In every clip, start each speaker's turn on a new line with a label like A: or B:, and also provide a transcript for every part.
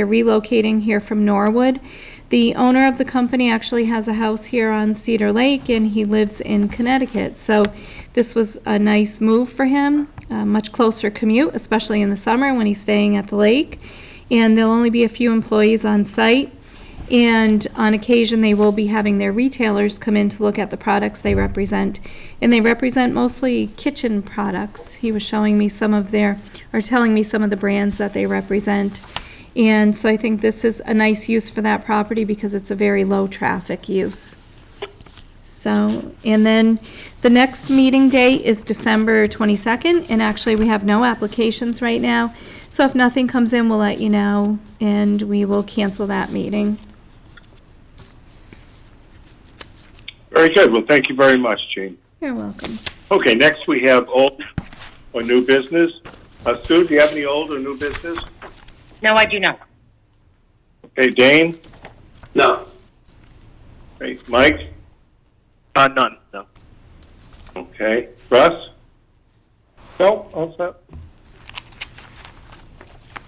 A: They're relocating here from Norwood. The owner of the company actually has a house here on Cedar Lake, and he lives in Connecticut. So this was a nice move for him, a much closer commute, especially in the summer when he's staying at the lake. And there'll only be a few employees on site. And on occasion, they will be having their retailers come in to look at the products they represent. And they represent mostly kitchen products. He was showing me some of their, or telling me some of the brands that they represent. And so I think this is a nice use for that property because it's a very low-traffic use. So, and then the next meeting date is December 22nd, and actually, we have no applications right now. So if nothing comes in, we'll let you know, and we will cancel that meeting.
B: Very good. Well, thank you very much, Gene.
A: You're welcome.
B: Okay, next we have old or new business. Uh, Sue, do you have any old or new business?
C: No, I do not.
B: Okay, Dane?
D: No.
B: Okay, Mike?
D: Uh, none. No.
B: Okay. Russ? No, all set.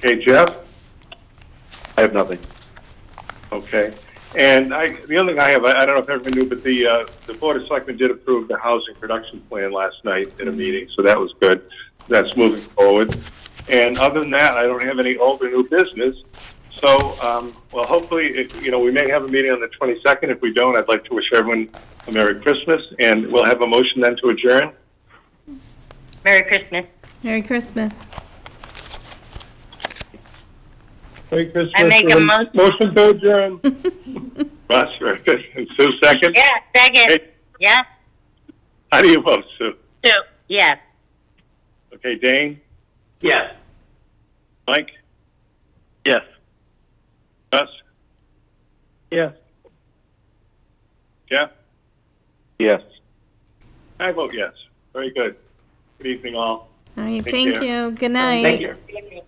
B: Okay, Jeff?
D: I have nothing.
B: Okay. And I, the only thing I have, I, I don't know if everyone knew, but the, uh, the Board of Selectmen did approve the housing production plan last night
C: Mm-hmm.
B: in a meeting, so that was good. That's moving forward. And other than that, I don't have any old or new business. So, um, well, hopefully, if, you know, we may have a meeting on the 22nd. If we don't, I'd like to wish everyone a Merry Christmas, and we'll have a motion then to adjourn.
C: Merry Christmas.
A: Merry Christmas.
B: Merry Christmas.
C: I make a mo-
B: Motion to adjourn. Russ, very good. And Sue, second.
C: Yeah, second.
B: Hey.
C: Yeah,
B: How do you vote, Sue?
C: two. Yes.
B: Okay, Dane?
D: Yes.
B: Mike?
D: Yes.
B: Russ?
D: Yes.
B: Jeff?
D: Yes.
B: I vote yes. Very good. Good evening, all.
A: All right,
B: Take
A: thank
B: care.
A: you. Good night.
D: Thank you.
C: Good evening.